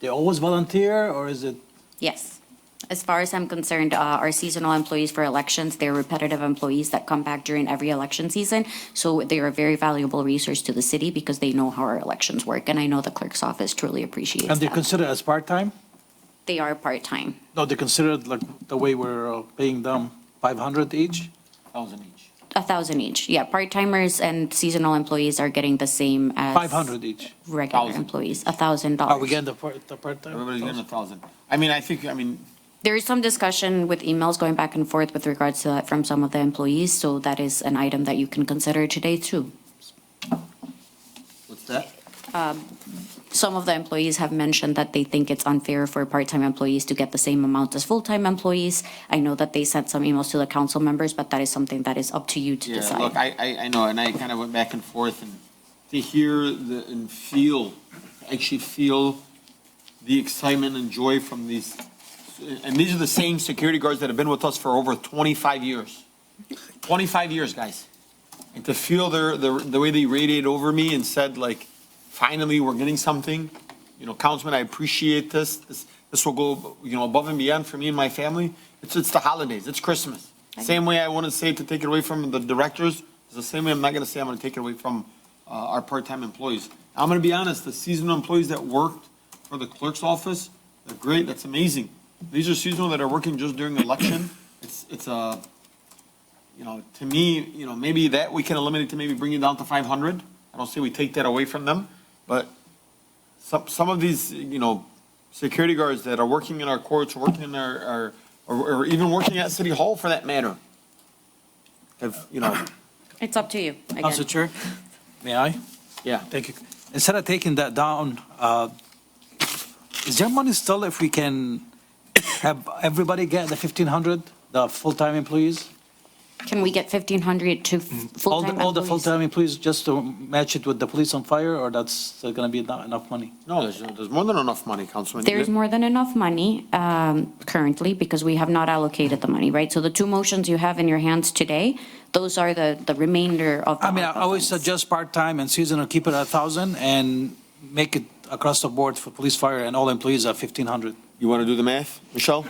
they always volunteer or is it? Yes. As far as I'm concerned, uh, our seasonal employees for elections, they're repetitive employees that come back during every election season. So they are a very valuable resource to the city because they know how our elections work. And I know the clerk's office truly appreciates And they're that. considered as part-time? They are part-time. No, they're considered like the way we're uh, paying them, 500 each? 1,000 each. A thousand each. Yeah, part-timers and seasonal employees are getting the same as 500 each. regular 1,000. employees, a thousand dollars. Are we getting the part- the part-time? Everybody's getting a thousand. I mean, I think, I mean, There is some discussion with emails going back and forth with regards to that from some of the employees. So that is an item that you can consider today too. what's that? some of the employees have mentioned that they think it's unfair for part-time employees to get the same amount as full-time employees. I know that they sent some emails to the council members, but that is something that is up to you to Yeah, look, decide. I, I, I know, and I kind of went back and forth and to hear the, and feel, actually feel the excitement and joy from these, and these are the same security guards that have been with us for over twenty-five years. Twenty-five years, guys. And to feel their, the, the way they radiated over me and said like, finally, we're getting something. You know, Councilman, I appreciate this. This, this will go, you know, above and beyond for me and my family. It's, it's the holidays. It's Christmas. Same way I want to say to take it away from the directors, it's the same way I'm not going to say I'm going to take it away from uh, our part-time employees. I'm going to be honest, the seasonal employees that worked for the clerk's office, they're great. That's amazing. These are seasonal that are working just during election. It's, it's a, you know, to me, you know, maybe that we can eliminate to maybe bring it down to five hundred. I don't say we take that away from them, but some, some of these, you know, security guards that are working in our courts, working in our, our, or, or even working at City Hall for that matter. Have, you know, It's up to you, Council again. Chair, may I? yeah. Thank you. Instead of taking that down, uh, is there money still if we can have everybody get the 1,500, the full-time employees? Can we get fifteen hundred to f- Mm-hmm. All the, full-time all the employees? full-time employees, just to match it with the police on fire, or that's gonna be not enough money? No, there's, there's more than enough money, Councilman. There is more than enough money um, currently because we have not allocated the money, right? So the two motions you have in your hands today, those are the, the remainder of. the I mean, I ARPA always funds. suggest part-time and seasonal, keep it at 1,000, and make it across the board for police, fire, and all employees at 1,500. You want to do the math, Michelle?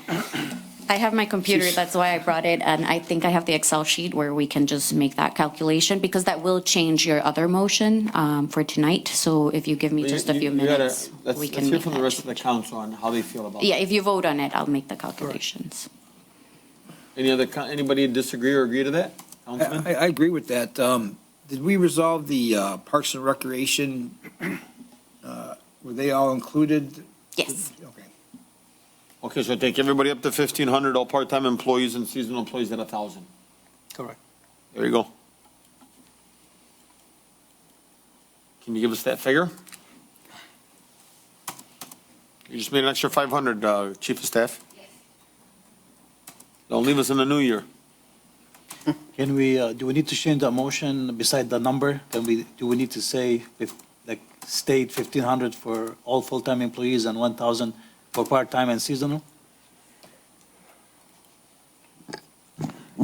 I have my computer, that's why I brought it, and I think I have the Excel sheet where we can just make that calculation, because that will change your other motion um, for tonight, so if you give me just a You- few you gotta- minutes, Let's, we let's can hear make from the that rest of the change. council on how they feel about it. Yeah, if you vote on it, I'll make the calculations. Any other, co- anybody disagree or agree to that? Councilman? I, I agree with that. Um, did we resolve the, uh, Parks and Recreation? Uh, were they all included? Yes, Okay. Okay, so take everybody up to fifteen hundred, all part-time employees and seasonal employees at a thousand. Correct. There you go. Can you give us that figure? You just made an extra five hundred, uh, Chief of Staff. Don't leave us in the new year. Can we, uh, do we need to change the motion beside the number? Can we, do we need to say, if, like, state 1,500 for all full-time employees and 1,000 for part-time and seasonal?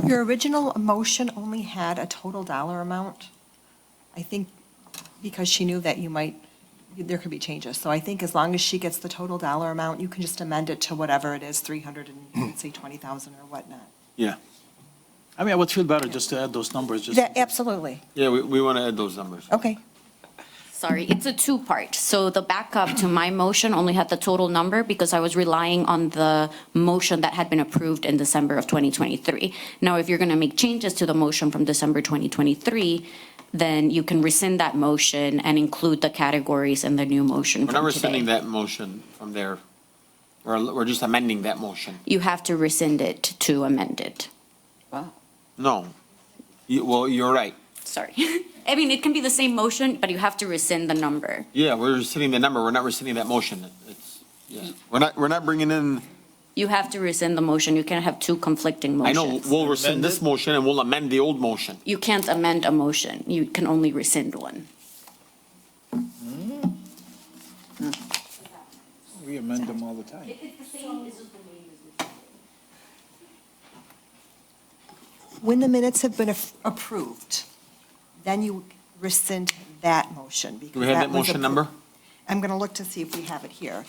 Your original motion only had a total dollar amount. I think because she knew that you might, there could be changes. So I think as long as she gets the total dollar amount, you can just amend it to whatever it is, 300 and, say, 20,000 or whatnot. Yeah. I mean, I would feel better just to add those numbers, just. Yeah, Absolutely. Yeah, we, we want to add those numbers. Okay. sorry, it's a two-part, so the backup to my motion only had the total number because I was relying on the motion that had been approved in December of 2023. Now, if you're going to make changes to the motion from December 2023, then you can rescind that motion and include the categories in the new motion We're not from rescinding today. that motion from there. We're, we're just amending that motion. You have to rescind it to amend it. No. You, well, you're right. Sorry. I mean, it can be the same motion, but you have to rescind the number. Yeah, we're rescinding the number. We're not rescinding that motion. It's, yeah. We're not, we're not bringing in You have to rescind the motion. You can't have two conflicting I know, motions. we'll rescind this motion and we'll amend the old motion. You can't amend a motion. You can only rescind one. We amend them all the time. When the minutes have been af- approved, then you rescind that motion. Do we have that was motion appro- number? I'm going to look to see if we have it here.